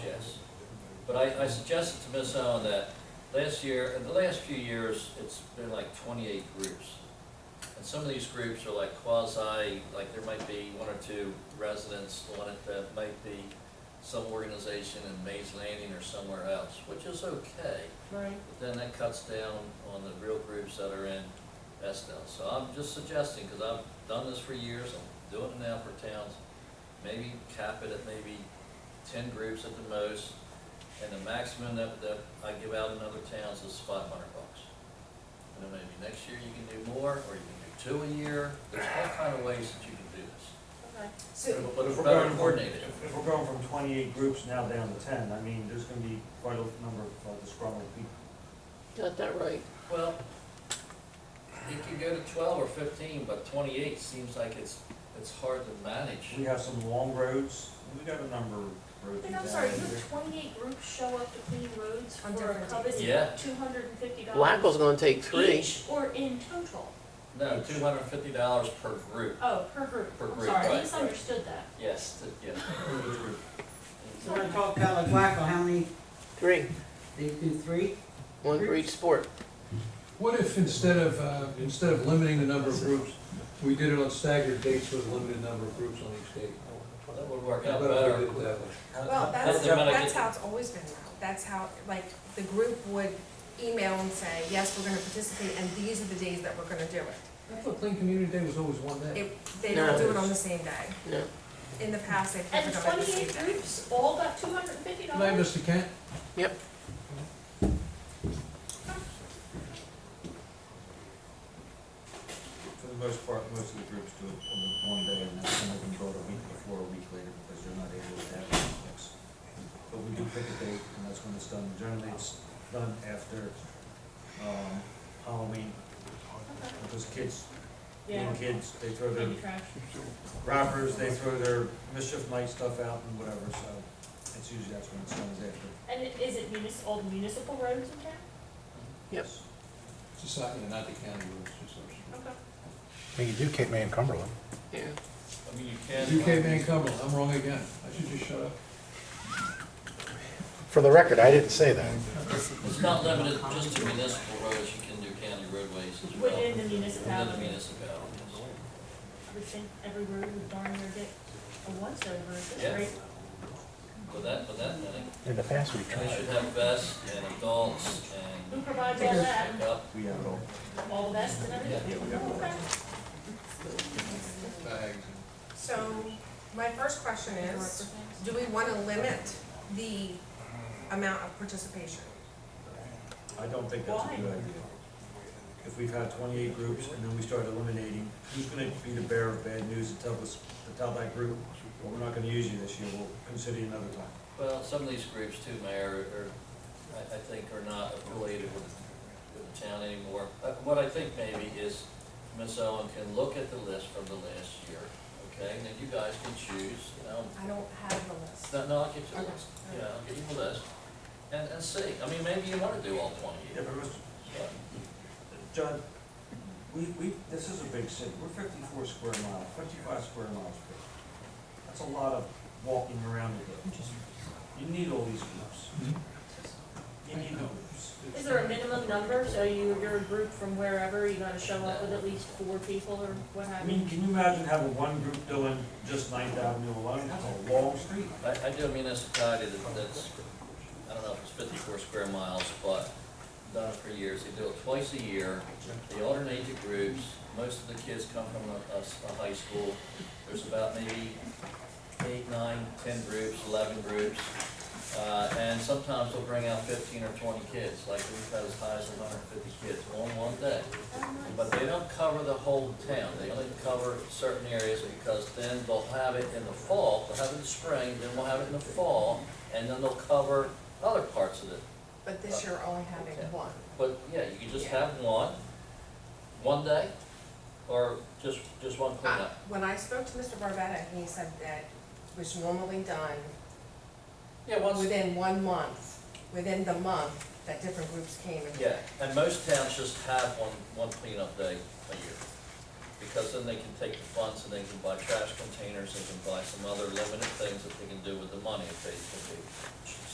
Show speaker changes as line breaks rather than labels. But I, I suggested to Miss Owen that last year, in the last few years, it's been like twenty-eight groups. And some of these groups are like quasi, like there might be one or two residents on it that might be some organization in Mays Landing or somewhere else, which is okay.
Right.
But then that cuts down on the real groups that are in Estill. So I'm just suggesting, because I've done this for years, I'm doing it now for towns, maybe cap it at maybe ten groups at the most, and the maximum that, that I give out in other towns is five hundred bucks. And then maybe next year you can do more, or you can do two a year, there's all kind of ways that you can do this.
Okay.
So,
But it's
If we're
better
going from-
coordinated.
If if we're going from twenty-eight groups now down to ten, I mean, there's gonna be quite a number of uh, disgruntled people.
Got that right.
Well, you could go to twelve or fifteen, but twenty-eight seems like it's, it's hard to manage.
We have some long roads, and we got a number of roads
But
down
I'm sorry, you
here.
have twenty-eight groups show up to clean roads for
On
a
different
coveted
days. Yeah.
two hundred and fifty dollars
Wackle's gonna take three.
each, or in total?
No, two hundred and fifty dollars per group.
Oh, per group,
Per
I'm
group,
sorry,
right,
I
right.
misunderstood that.
Yes, t- yeah.
So we're gonna talk about like Waco, how many,
Three.
they do three?
One for each sport.
What if instead of, uh, instead of limiting the number of groups, we did it on staggered dates with a limited number of groups on each date?
That would work
How
out
about if we
better.
did it that way?
well, that's,
That's the amount I
that's
get.
how it's always been now. That's how, like, the group would email and say, yes, we're gonna participate, and these are the days that we're gonna do it.
I thought Clean Community Day was always one day.
It, they don't
No.
do it on the same day.
No.
In the past, they've never
And
done it the same
twenty-eight
day.
groups all got two hundred and fifty
Good night,
dollars?
Mr. Kent.
Yep.
For the most part, most of the groups do it on the one day, and then some of them go to a week before, a week later, because they're not able to have it mixed. But we do pick a date, and that's when it's done. Generally, it's done after, um, Halloween, because kids, young kids, they throw their
trash.
wrappers, they throw their mischief night stuff out and whatever, so it's usually that's when it's done, is after.
And it- is it munis, all the municipal roads in town?
Yep.
Society, not the county rules, just ours.
Okay.
Well, You do Cape May and Cumberland.
Yeah.
I mean, you can.
UK Van Cumberland, I'm wrong again. I should just shut up.
For the record, I didn't say that.
It's not limited just to municipal roads, you can do county roadways as well.
Within the
Within the
municipality,
municipalities.
we think every road would darn near get a once over, is
Yeah.
this right?
With that, with that many,
In the past, we
and they should
tried.
have vests and adults
Who
and
provides all that,
pickup.
We have it all.
all the vests and everything? Oh, okay.
Bags and-
So, my first question is, do we wanna limit the amount of participation?
I don't think that's a
Why?
good idea. If we've had twenty-eight groups and then we start eliminating, who's gonna be the bearer of bad news and tell us, to tell that group, well, we're not gonna use you this year, we'll consider you another time.
Well, some of these groups too, Mayor, are, I, I think are not affiliated with, with the town anymore. Uh, What I think maybe is Ms. Owen can look at the list from the last year, okay? And then you guys can choose, you know,
I don't have the list.
No, no, I'll get you
Okay.
the list, yeah, I'll get you the list, and, and see, I mean, maybe you wanna do all
Yeah,
twenty,
but Mr.
but
John, we, we, this is a big city, we're fifty-four square miles, fifty-five square miles big. That's a lot of walking around to do. You need all these groups. You need the groups.
Is there a minimum number, so you, you're a group from wherever, you gotta show up with at least four people or what
I
have you?
mean, can you imagine having one group doing just Ninth Avenue alone, that's a long street.
I, I do a municipality that- that's, I don't know if it's fifty-four square miles, but done it for years, they do it twice a year, they alternate the groups, most of the kids come from a, a s- a high school, there's about maybe eight, nine, ten groups, eleven groups, uh, and sometimes they'll bring out fifteen or twenty kids, like we've had as high as hundred and fifty kids on one day. But they don't cover the whole town, they only cover certain areas because then they'll have it in the fall, they'll have it in the spring, then we'll have it in the fall, and then they'll cover other parts of it.
But this year, only having one.
But, yeah, you can just have one, one day, or just, just one
Uh,
cleanup.
When I spoke to Mr. Barbetta, he said that was normally done
Yeah, once,
within one month, within the month, that different groups came and.
yeah, and most towns just have one, one cleanup day a year. Because then they can take the funds and they can buy trash containers, they can buy some other limited things that they can do with the money if they, if they